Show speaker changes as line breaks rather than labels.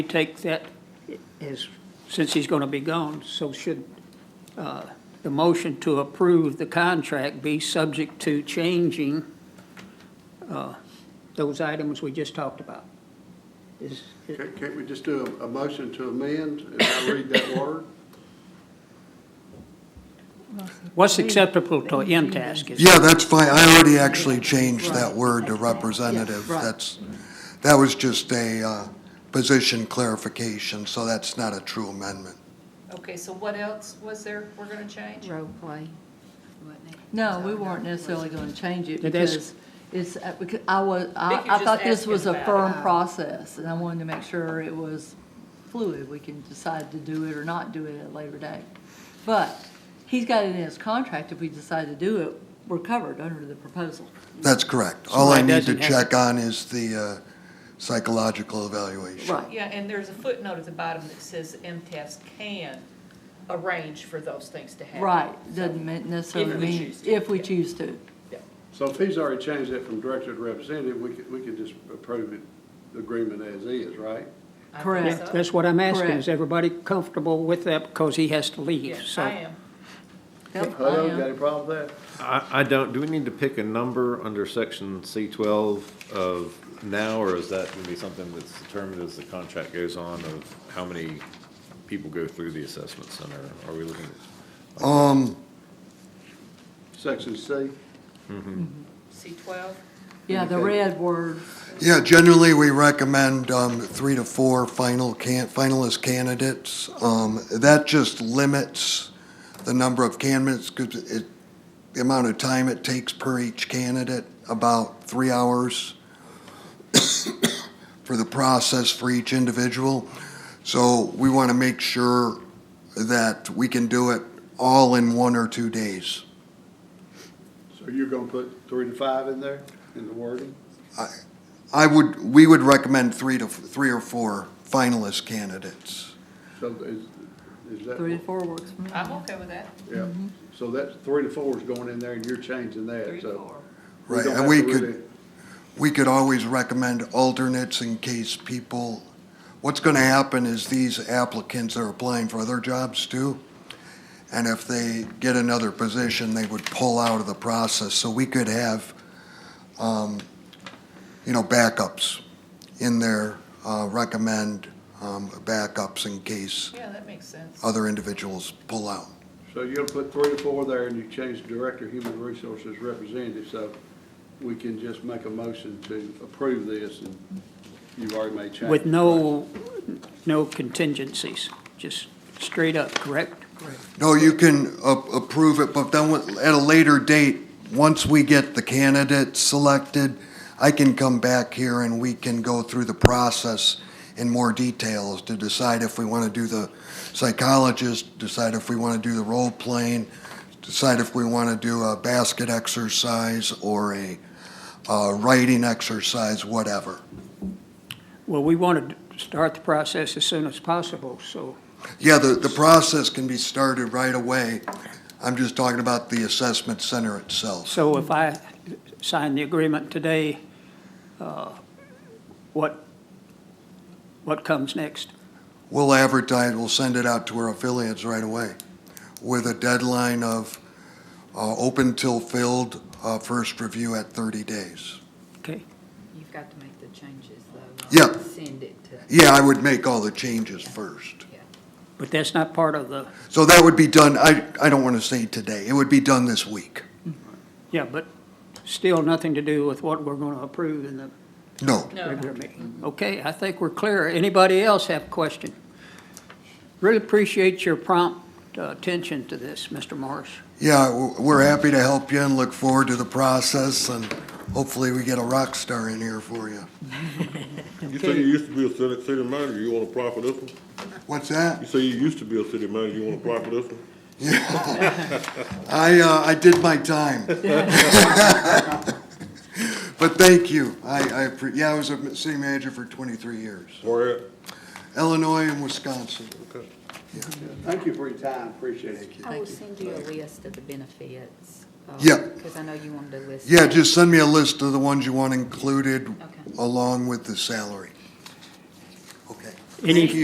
We take that as, since he's going to be gone, so should uh, the motion to approve the contract be subject to changing uh, those items we just talked about? Is,
Can't, can't we just do a, a motion to amend and I read that word?
what's acceptable to MTASK? is-
Yeah, that's fine. I already actually changed that word to representative.
Yeah, right.
That's, that was just a uh, position clarification, so that's not a true amendment.
Okay, so what else was there we're gonna change?
role play, wasn't it?
No, we weren't necessarily going to change it
It is-
because it's, uh, because I was,
Vic,
I,
you're
I thought
just
this was a
asking
firm
about
um,
process and I wanted to make sure it was fluid. We can decide to do it or not do it at a later date. But he's got it in his contract. If we decide to do it, we're covered under the proposal.
That's correct. All I
that
need to
doesn't have-
check on is the uh, psychological evaluation.
Right.
Yeah, and there's a footnote at the bottom that says MTS can arrange for those things to happen.
Right, doesn't mean- necessarily
If we
mean,
choose to,
if we
yeah.
choose to.
So if he's already changed that from director to representative, we could, we could just approve it, the agreement as is, right?
I think
Correct.
so.
That's what I'm asking, is
Correct.
everybody comfortable with that because he has to leave?
Yeah,
So
I am.
Yep, I
Hello,
am.
got any problem with that?
I, I don't, do we need to pick a number under section C twelve of now, or is that gonna be something that's determined as the contract goes on of how many people go through the assessment center? Are we looking at?
Um,
Section C,
C twelve,
Yeah, the red word,
Yeah, generally, we recommend um, three to four final can, finalist candidates. Um, That just limits the number of candidates, 'cause it, the amount of time it takes per each candidate, about three hours for the process for each individual. So we want to make sure that we can do it all in one or two days.
so you're gonna put three to five in there, in the wording?
I would, we would recommend three to, three or four finalist candidates.
So is, is that?
three to mm-hmm. four works for me.
I'm okay with that,
Yeah, so that's, three to four is going in there and you're changing
three
that,
to
so.
four.
we
Right,
don't
and
have
we
to
could-
really-
we could always recommend alternates in case people, what's going to happen is these applicants are applying for other jobs too. And if they get another position, they would pull out of the process. So we could have, um, you know, backups in there, uh, recommend, um, backups in case
Yeah, that makes sense.
other individuals pull out.
So you're gonna put three to four there and you change the director, human resources representative, so we can just make a motion to approve this and you've already made changes.
with no, no contingencies, just straight up, correct?
No, you can a- approve it, but then with- at a later date, once we get the candidate selected, I can come back here and we can go through the process in more details to decide if we want to do the psychologist, decide if we want to do the role playing, decide if we want to do a basket exercise or a uh, writing exercise, whatever.
Well, we want to start the process as soon as possible, so
Yeah, the, the process can be started right away. I'm just talking about the assessment center itself.
So if I sign the agreement today, uh, what, what comes next?
We'll advertise, we'll send it out to our affiliates right away with a deadline of uh, open till filled, uh, first review at 30 days.
Okay,
You've got to make the changes though.
Yeah.
Send it to,
Yeah, I would make all the changes first.
but that's not part of the,
So that would be done, I, I don't want to say today, it would be done this week.
yeah, but still nothing to do with what we're going to approve in the
No.
No,
regular meeting. Okay, I think we're clear. Anybody else have a question? Really appreciate your prompt uh, attention to this, Mr. Morris.
Yeah, w- we're happy to help you and look forward to the process and hopefully we get a rock star in here for you.
You say you used to be a city, city manager, you wanna apply for this one?
What's that?
You say you used to be a city manager, you wanna apply for this one?
I, uh, I did my time. But thank you. I, I, appre- yeah, I was a city manager for 23 years,
Where at?
Illinois and Wisconsin.
Thank you for your time, appreciate it.
I will send you a list of the benefits.
Yeah.
Because I know you wanted a list.
Yeah, just send me a list of the ones you want included
Okay.
along with the salary. Okay. Any